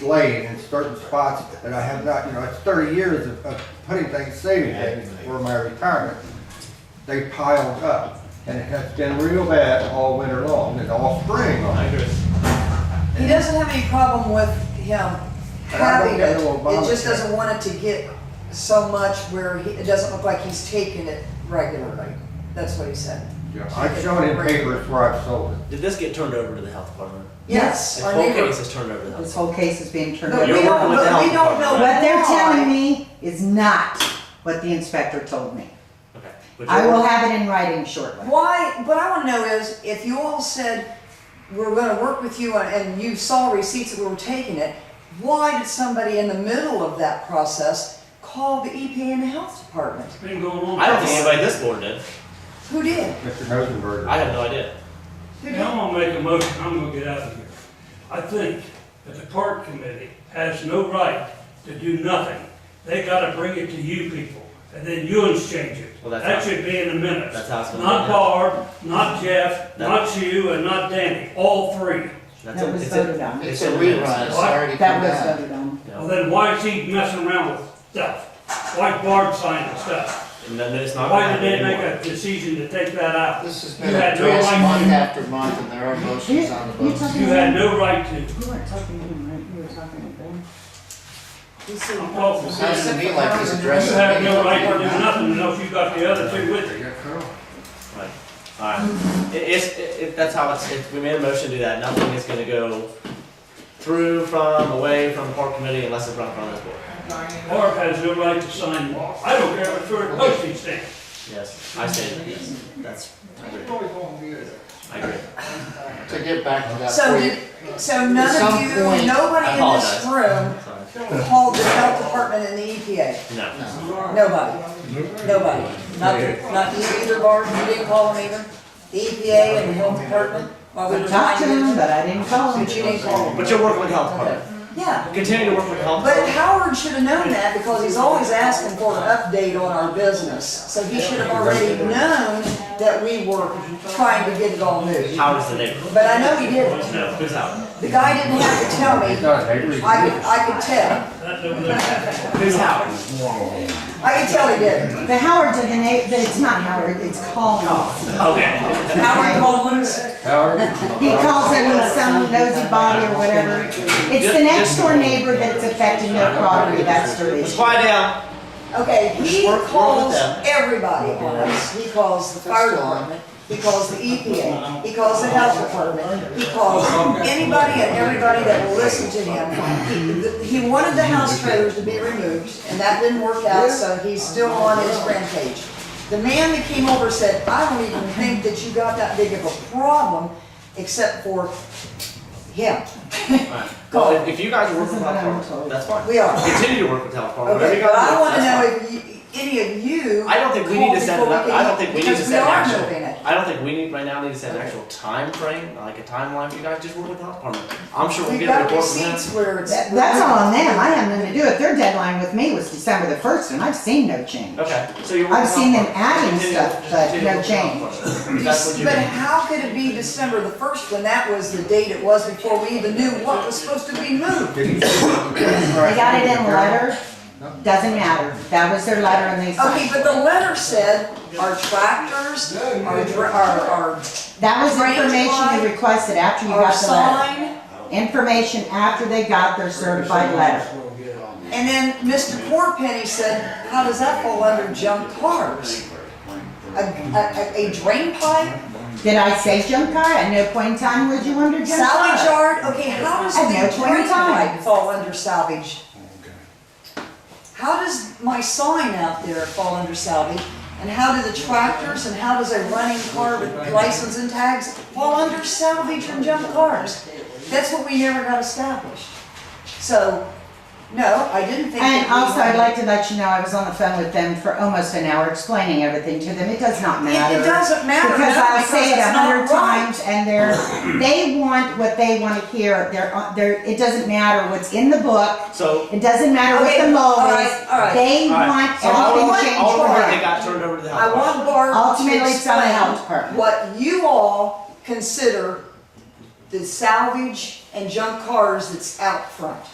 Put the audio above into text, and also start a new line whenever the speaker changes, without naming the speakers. lane in certain spots that I have not, you know, it's thirty years of, of putting things, saving things for my retirement. They piled up and it has been real bad all winter long and all spring long.
He doesn't have any problem with
And
him
I don't
having
get
it,
no
it
Obamacare.
just doesn't want it to get so much where he, it doesn't look like he's taking it regularly. That's what he said.
Yeah, I've shown in papers where I've sold it.
Did this get turned over to the health department?
Yes,
This
our
whole
neighbor.
case is turned over to the health.
This whole case is being turned
But
You're
we
over.
don't,
working with the
but we
health
don't know.
department,
What they're telling
why.
me is not what the inspector told me.
Okay. Would you-
I will have it in writing shortly.
Why, what I wanna know is, if you all said, we're gonna work with you, and- and you saw receipts that we were taking it, why did somebody in the middle of that process call the EPA and the health department?
Been going on.
I don't think anybody at this board did.
Who did?
Mr. Rosenberg.
I have no idea.
Who
I'm
did?
gonna make a motion, I'm gonna get out of here. I think that the park committee has no right to do nothing. They gotta bring it to you people, and then you exchange it.
Well, that's
That
how-
should be in the minutes.
that's how it's gonna
Not
be.
Barb, not Jeff,
No.
not you, and not Danny, all three.
That's
That
it.
was
It's
voted
it.
on.
It's
It's
a
in the minutes.
rerun, it's
What?
already
That
come
was
out.
voted on.
Well, then why is he messing around with stuff? Why Barb signing stuff?
And then it's not. gonna
Why did
happen
they make
anymore.
a decision to take that out?
This has
You
been
had no
addressed
right
month
to-
after month, and there are motions on the
You
books.
talking
You had no right to.
You weren't talking to him, right? You were talking to them.
He said-
I'm talking to
Sounds to me like he's
You
addressing.
have no right to do
me.
nothing unless you got the other two with you.
Right. All right. It, it's it, it, that's how it's. It, we made a motion to do that. Nothing is going to go through, from, away from the park committee unless it's run from this board.
Mark has no right to sign law. I don't care what sort of post he stands.
Yes, I say that. Yes, that's. I agree. I agree.
To get back to that
So
point,
did, so none
some
of you,
point-
nobody
I
in this
apologize.
room
Sorry.
called the health department and the EPA?
No.
Nobody? Nobody? Not, not you either, Barb, you didn't call them either? The EPA and the health department? While we
I
were
talked to
trying
him,
to-
but I didn't call him.
But you didn't call them?
But you're working with the health department.
Yeah,
Continue to work with the health
but
department.
Howard should have known that because he's always asking for an update on our business. So he should have already known that we were trying to get it all moved.
How does the neighbor?
But I know he didn't.
No. Who's Howard?
The guy didn't have to tell me.
It's not a paper.
I could, I could tell.
That's over there.
Who's Howard?
I could tell he didn't.
The Howard, the, it's not Howard, it's Collins.
Okay.
Howard Collins.
Howard?
He calls it with some nosy body or whatever. It's the next door neighbor that's affecting their property, that's their
Let's
issue.
quiet down.
Okay, he
Work- work with
calls
them.
everybody on us. He calls the fire department. He calls the EPA. He calls the health department. He calls anybody and everybody that will listen to him. He he wanted the house trailers to be removed, and that didn't work out, so he's still on his rampage. The man that came over said, I don't even think that you got that big of a problem, except for him.
Well, if- if you guys are working with
This is what I'm
health department,
told.
that's fine.
We are.
Continue to work with health department.
Okay,
Whatever you
but
gotta
I
do,
wanna
that's
know
fine.
if you- any of you.
I don't think we need to
called
set
before
an up, I don't
came,
think we need to
because
set an
are moving it.
actual, I don't think we need, right now, need to set an actual timeframe, like a timeline, you guys just work with the health department. I'm sure we'll
We've
get a
got
report from them.
receipts where it's.
That- That's all on them, I have nothing to do with it. Their deadline with me was December the first, and I've seen no change.
Okay, so you're.
I've seen them adding stuff, but no
change. That's what you
But
do.
how could it be December the first when that was the date it was before we even knew what was supposed to be moved?
They
They got
got
it in letter, doesn't matter, that was their letter and they
Okay,
signed.
but the letter said our tractors, our, dr- our, our,
That was
Range
information
line,
they requested after you
our
got the letter.
sign.
Information after they got their certified letter.
And then Mr. Porpenny said, how does that fall under junk cars? A, a, a- a drain pipe?
Did I say junk car? At no point in time would you under junk car?
Salvage yard, okay, how does
At no
the
point in
drain
time.
pipe fall under salvage? How does my sign out there fall under salvage? And how do the tractors and how does a running car with license and tags fall under salvage and junk cars? That's what we never got established. So, no, I didn't think.
And
that we
also, I'd
had-
like to let you know, I was on the phone with them for almost an hour explaining everything to them. It does not matter.
It, it doesn't matter,
Because
no,
I'll say it a
it's
hundred
not right.
times and they're, they want what they want to hear. They're, on- they're, it doesn't matter what's in the book.
So,
It doesn't matter what
Okay,
the
all
law
right,
is.
all right.
They
all right,
want
so all of
everything
them,
changed
all
for
of them, they
them.
got turned over to the health
I
department.
want Barb to
Ultimately, it's on the health
explain
department.
what you all consider the salvage and junk cars that's out front.